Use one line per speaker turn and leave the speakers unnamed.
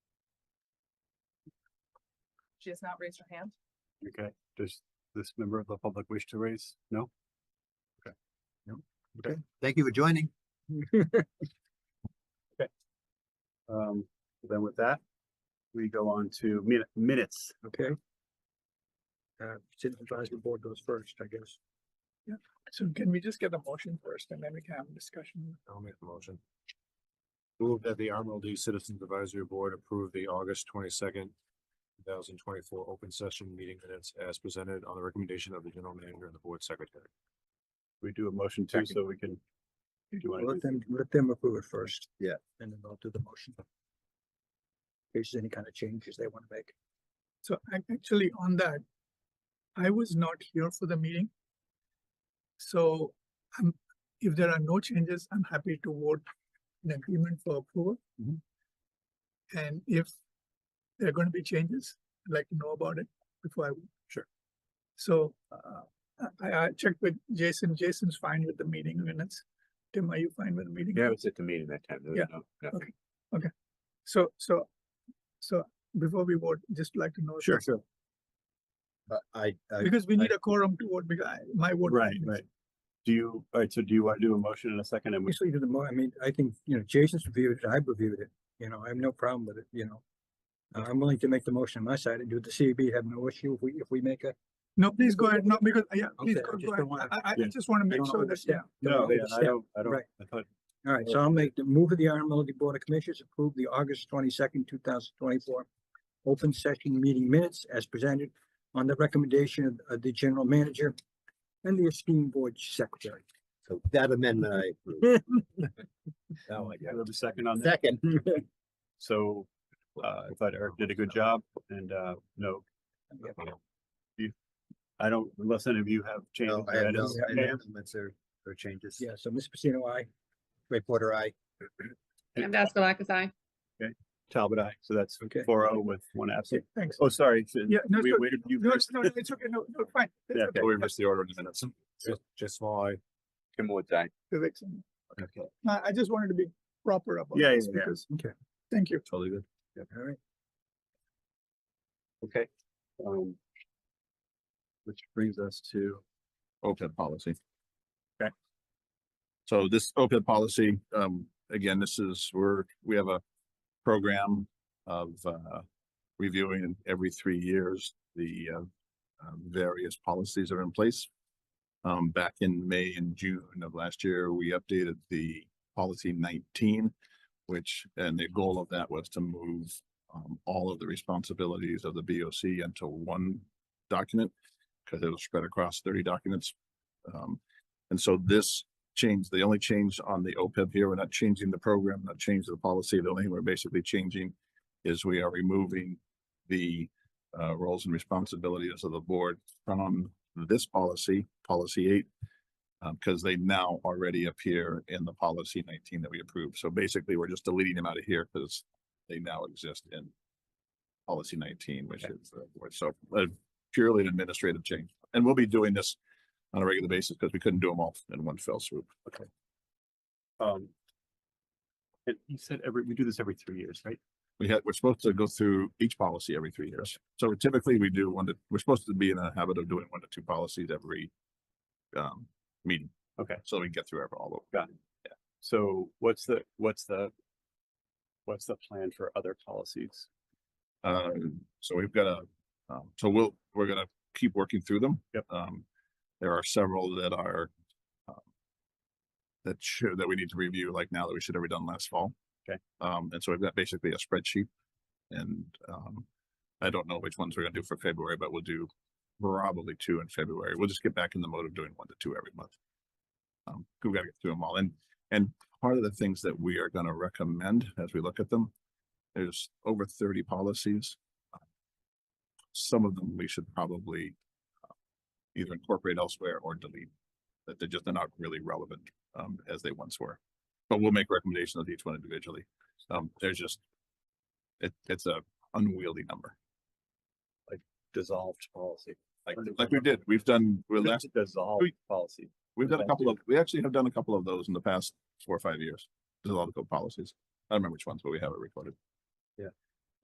She has not raised her hand.
Okay, does this member of the public wish to raise? No? Okay. No? Okay,
Thank you for joining.
um, then with that, we go on to min- minutes.
Okay. Uh, citizen advisory board goes first, I guess.
So can we just get a motion first and then we can have a discussion?
I'll make the motion.
Move that the RMLD Citizens Advisory Board approve the August twenty-second, two thousand twenty-four open session meeting minutes as presented on the recommendation of the general manager and the board secretary.
We do a motion too, so we can. Do you want
Let
to?
them, let them approve it first.
Yeah.
And then I'll do the motion. In case there's any kind of changes they want to make.
So ac- actually on that, I was not here for the meeting. So I'm, if there are no changes, I'm happy to vote in agreement for approval.
Mhm.
And if there are going to be changes, I'd like to know about it before I. vote.
Sure.
So uh, I- I, I checked with Jason. Jason's fine with the meeting minutes. Tim, are you fine with the meeting?
Yeah, it's at the meeting that time. there was
Yeah.
no- nothing.
Okay. So, so, so before we vote, just like to know. if it's-
sure.
But I, I,
Because we need a quorum to vote, because I- my vote.
Right,
matters.
right. Do you, all right, so do you want to do a motion in a second and we,
Usually do the more, I mean, I think, you know, Jason's reviewed it, I've reviewed it, you know, I have no problem with it, you know. Uh, I'm willing to make the motion on my side and do the CB, have no issue if we, if we make a.
No, please go ahead, no, because, yeah, please
Okay, I
go
just
go ahead,
don't wanna-
I, I- I
yeah,
just wanna make
don't
sure that, yeah,
overstep. Don't
no, yeah, I
overstep.
don't, I don't,
right.
I thought,
All right, so I'll make the move of the RMLD Board of Commissioners approve the August twenty-second, two thousand twenty-four open session meeting minutes as presented on the recommendation of- of the general manager and the esteemed board secretary.
so that amendment I approve.
oh, I got a second on that.
Second,
So, uh, I thought Eric did a good job and, uh, no. You- I don't, unless any of you have changes.
no,
or
I have no,
edits.
I have no
Ma'am?
amendments or, or changes.
Yeah, so Ms. Pacino, I,
Reporter, I,
And-
Vasco I.
Talbot, I, so that's
Okay.
four oh with one absent.
thanks.
Oh, sorry. so
Yeah, no,
We
so-
waited you
No, no,
first.
no, no, it's okay, no, no, fine. it's
Yeah,
okay.
Oh, we missed the order in the minutes. Just- Just small, I,
Vivek's in. No, I just wanted to be proper about
Yeah, yeah,
this,
yeah.
because,
Okay.
thank you.
totally good.
all right,
Okay. Um. Which brings us to,
OPEB E policy.
Okay.
So this OPEB policy, um, again, this is, we're, we have a program of, uh, reviewing every three years, the, uh, uh, various policies that are in place. Um, back in May and June of last year, we updated the policy nineteen, which, and the goal of that was to move, um, all of the responsibilities of the BOC into one document because it was spread across thirty documents. Um, and so this change, the only change on the OPEB here, we're not changing the program, not changing the policy. The only thing we're basically changing is we are removing the uh, roles and responsibilities of the board from this policy, policy eight, because they now already appear in the policy nineteen that we approved. So basically, we're just deleting them out of here because they now exist in policy nineteen, which is the board. So uh, purely an administrative change. And we'll be doing this on a regular basis because we couldn't do them all in one fell swoop. Okay.
um. And you said every, we do this every three years, right?
We had, we're supposed to go through each policy every three years. So typically we do one to, we're supposed to be in a habit of doing one to two policies every um, meeting.
Okay.
So we can get through ever all of them.
So what's the, what's the? What's the plan for other policies?
Um, so we've got a, um, so we'll, we're gonna keep working through them.
Yep.
Um, there are several that are um, that should, that we need to review like now that we should have done last fall.
Okay.
Um, and so we've got basically a spreadsheet and, um, I don't know which ones we're gonna do for February, but we'll do probably two in February. We'll just get back in the mode of doing one to two every month. Um, we gotta get through them all. And, and part of the things that we are gonna recommend as we look at them there's over thirty policies. Some of them we should probably uh, either incorporate elsewhere or delete, that they're just they're not really relevant um as they once were. But we'll make recommendations of each one individually. Um, there's just it, it's a unwieldy number,
Dissolved policy. Like,
like we did, we've done, we're last,
That's dissolved
we-
policy.
we've done a couple of, we actually have done a couple of those in the past four or five years. There's a lot of good policies. I don't remember which ones, but we have it recorded.